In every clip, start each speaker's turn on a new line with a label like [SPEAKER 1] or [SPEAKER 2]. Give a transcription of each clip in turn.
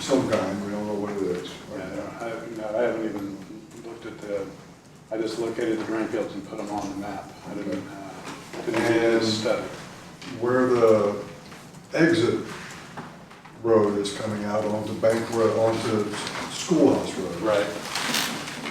[SPEAKER 1] some kind, we don't know what it is uh, right now.
[SPEAKER 2] I, no, I haven't even looked at the, I just located the drain fields and put them on the map. I didn't, uh, didn't do
[SPEAKER 1] And-
[SPEAKER 2] this study.
[SPEAKER 1] Where the exit road is coming out onto Bank Road, onto Schoolhouse Road.
[SPEAKER 2] Right.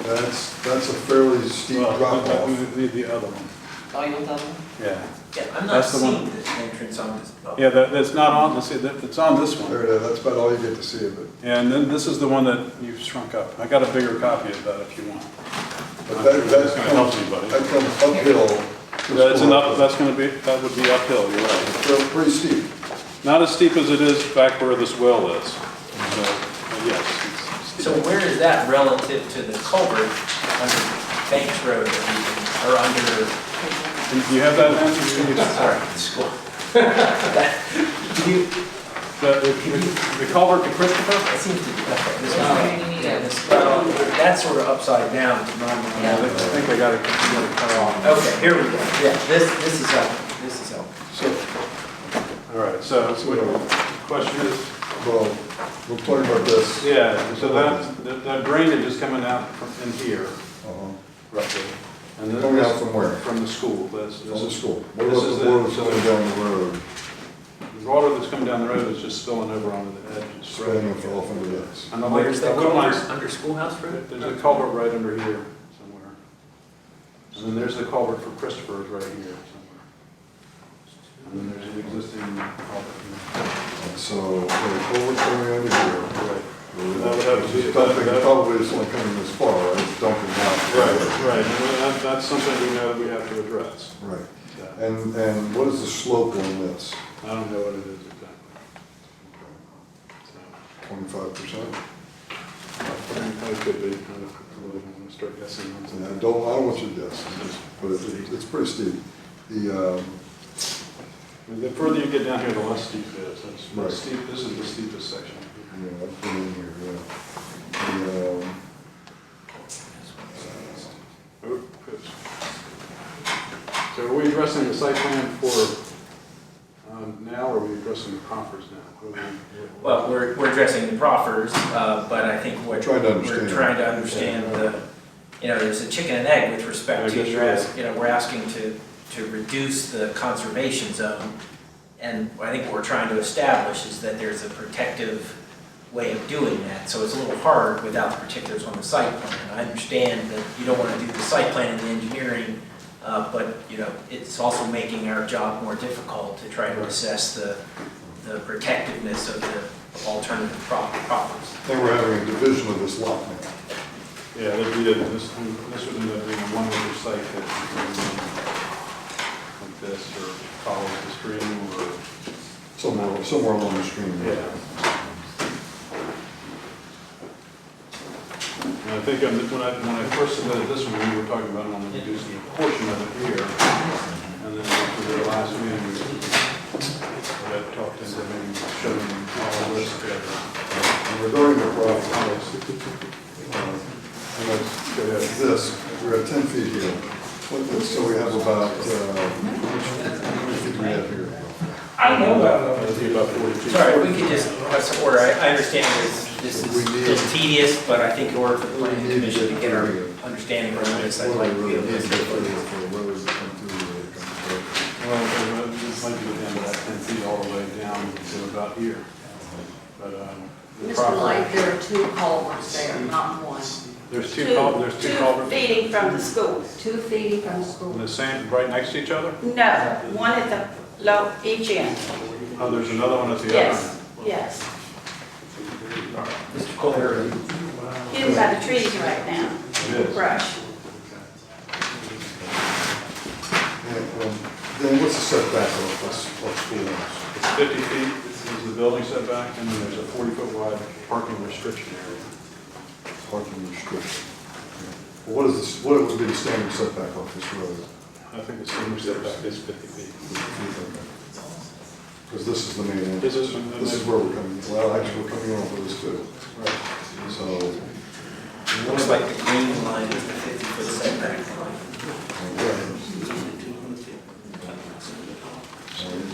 [SPEAKER 1] That's, that's a fairly steep
[SPEAKER 2] Well,
[SPEAKER 1] drop
[SPEAKER 2] but we
[SPEAKER 1] off.
[SPEAKER 2] Need the other one,
[SPEAKER 3] Oh, you want that one?
[SPEAKER 2] yeah.
[SPEAKER 3] Yeah, I'm not
[SPEAKER 2] That's the one.
[SPEAKER 3] seeing this entrance on this. oh.
[SPEAKER 2] Yeah, that, that's not on, let's see, that, it's on this
[SPEAKER 1] There
[SPEAKER 2] one.
[SPEAKER 1] it is, that's about all you get to see of it.
[SPEAKER 2] And then this is the one that you've shrunk up. I got a bigger copy of that if you want.
[SPEAKER 1] But that,
[SPEAKER 2] That's
[SPEAKER 1] that
[SPEAKER 2] gonna help
[SPEAKER 1] comes,
[SPEAKER 2] you, buddy.
[SPEAKER 1] that comes uphill. to
[SPEAKER 2] That's an up,
[SPEAKER 1] Schoolhouse Road.
[SPEAKER 2] that's gonna be, that would be uphill, you're right.
[SPEAKER 1] So pretty steep.
[SPEAKER 2] Not as steep as it is back where this well is. So,
[SPEAKER 1] Mm-hmm.
[SPEAKER 2] uh, yes. it's
[SPEAKER 3] So
[SPEAKER 2] steep.
[SPEAKER 3] where is that relative to the culvert under Banks Road that we can- or under,
[SPEAKER 2] Do you have that answer?
[SPEAKER 3] sorry, school? That- do you-
[SPEAKER 2] The, the culvert to Christopher?
[SPEAKER 3] It seems to be, okay, this
[SPEAKER 4] Yeah,
[SPEAKER 3] one,
[SPEAKER 4] we need
[SPEAKER 3] yeah,
[SPEAKER 4] it.
[SPEAKER 3] this, well, that's sort of upside down to my
[SPEAKER 4] Yeah.
[SPEAKER 2] I
[SPEAKER 3] mind.
[SPEAKER 2] think I got it, got it cut off.
[SPEAKER 3] Okay, here we go, yeah, this, this is helpful, this is helpful.
[SPEAKER 1] So,
[SPEAKER 2] All right, so
[SPEAKER 1] so,
[SPEAKER 2] what- question is,
[SPEAKER 1] well, we're talking about this.
[SPEAKER 2] yeah, so that, that- that drainage is coming out from in here
[SPEAKER 1] Uh-huh.
[SPEAKER 2] roughly. And then
[SPEAKER 1] Coming out
[SPEAKER 2] this,
[SPEAKER 1] from where?
[SPEAKER 2] from the school, that's,
[SPEAKER 1] From the
[SPEAKER 2] the
[SPEAKER 1] school. What
[SPEAKER 2] This
[SPEAKER 1] about
[SPEAKER 2] is
[SPEAKER 1] the
[SPEAKER 2] the-
[SPEAKER 1] water that's going down the road,
[SPEAKER 2] water that's coming down the road is just spilling over onto the edges.
[SPEAKER 1] spilling off into this?
[SPEAKER 2] And I'm like,
[SPEAKER 3] Where's that
[SPEAKER 2] I wouldn't mind-
[SPEAKER 3] culvert, under Schoolhouse Road?
[SPEAKER 2] There's a culvert right under here somewhere. And then there's the culvert for Christopher's right here somewhere. And then there's an existing culvert.
[SPEAKER 1] And so, okay, culvert coming under here.
[SPEAKER 2] Right, That would have to be-
[SPEAKER 1] It's Dumping, probably it's only coming this far, right? It's dumping out.
[SPEAKER 2] right. And that, that's something we know that we have to address.
[SPEAKER 1] Right.
[SPEAKER 2] Yeah.
[SPEAKER 1] And, and what is the slope on this?
[SPEAKER 2] I don't know what it is exactly. So,
[SPEAKER 1] Twenty-five percent?
[SPEAKER 2] I mean, That could be, I don't really want to start guessing on
[SPEAKER 1] And I
[SPEAKER 2] something.
[SPEAKER 1] don't, I don't want you to guess, but it- it's pretty steep. The, um,
[SPEAKER 2] I mean, The further you get down here, the less steep it is. That's-
[SPEAKER 1] Right.
[SPEAKER 2] That's steep, this is the steepest section.
[SPEAKER 1] yeah, I've been in here, yeah. The, um,
[SPEAKER 2] Oh, oops. So are we addressing the site plan for um, now, or are we addressing the proffers now? What are we-
[SPEAKER 3] Well, we're, we're addressing the proffers, uh, but I think what.
[SPEAKER 1] Trying to understand.
[SPEAKER 3] We're trying to understand the, you know, there's a chicken and egg with
[SPEAKER 2] I
[SPEAKER 3] respect to,
[SPEAKER 2] guess
[SPEAKER 3] you're
[SPEAKER 2] you're
[SPEAKER 3] ask- you know, we're asking to, to reduce the conservation zone. And I think what we're trying to establish is that there's a protective way of doing that. So it's a little hard without the particulars on the site plan. I understand that you don't want to do the site plan and the engineering, uh, but, you know, it's also making our job more difficult to try to assess the, the protectiveness of the of alternative prop- properties.
[SPEAKER 1] I think we're having a division of this lot now.
[SPEAKER 2] Yeah, that'd be, it. this, this would end up being a one-acre site that, um, like this, or follows the stream, or,
[SPEAKER 1] Somewhere, somewhere along the stream.
[SPEAKER 2] yeah. And I think I'm- when I, when I first submitted this one, we were talking about only reducing a portion of it here, and then after the last meeting, we we got talked into maybe showing all this together.
[SPEAKER 1] And Regarding the property, uh, and that's- we have this, we're at ten feet here. What this- So we have about, uh, how many feet do we have here?
[SPEAKER 3] I don't know about uh,
[SPEAKER 2] It'd be about forty feet.
[SPEAKER 3] Sorry, we could just, let's order, I, I understand this, this
[SPEAKER 1] We
[SPEAKER 3] is
[SPEAKER 1] need-
[SPEAKER 3] it's tedious, but I think in order for the planning
[SPEAKER 1] We need to
[SPEAKER 3] commission to
[SPEAKER 1] get
[SPEAKER 3] get our
[SPEAKER 1] clear.
[SPEAKER 3] understanding around this, I'd
[SPEAKER 1] What
[SPEAKER 3] like
[SPEAKER 1] do
[SPEAKER 3] to
[SPEAKER 1] we
[SPEAKER 3] be able
[SPEAKER 1] really need to get for
[SPEAKER 3] to.
[SPEAKER 1] the roads to come through, uh, come through?
[SPEAKER 2] Well, this might be the end of that ten feet all the way down to about here. But, um, the
[SPEAKER 4] Mr.
[SPEAKER 2] property,
[SPEAKER 4] Light, there are two culverts there, not one.
[SPEAKER 2] there's two cul, there's two culverts,
[SPEAKER 4] feeding from the school, two feeding from
[SPEAKER 2] and
[SPEAKER 4] the school.
[SPEAKER 2] the same, right next to each other?
[SPEAKER 4] No, one at the low, each end.
[SPEAKER 2] Oh, there's another one at the other.
[SPEAKER 4] Yes, yes.
[SPEAKER 3] Mr. Kohler,
[SPEAKER 4] Hidden by the trees right now,
[SPEAKER 2] It is.
[SPEAKER 4] brush.
[SPEAKER 1] Yeah, um, Then what's the setback of this, of school house?
[SPEAKER 2] It's fifty feet, this is the building setback, and then there's a forty-foot wide parking restriction area.
[SPEAKER 1] Parking restriction. Well, What is this, what would be the standard setback off this road?
[SPEAKER 2] I think the senior setback is fifty feet.
[SPEAKER 1] Because this is the main entrance.
[SPEAKER 2] This is,
[SPEAKER 1] This is where we're coming, well, actually, we're coming on for this too. So,
[SPEAKER 3] looks like the green line is the fifty foot setback line.
[SPEAKER 1] okay.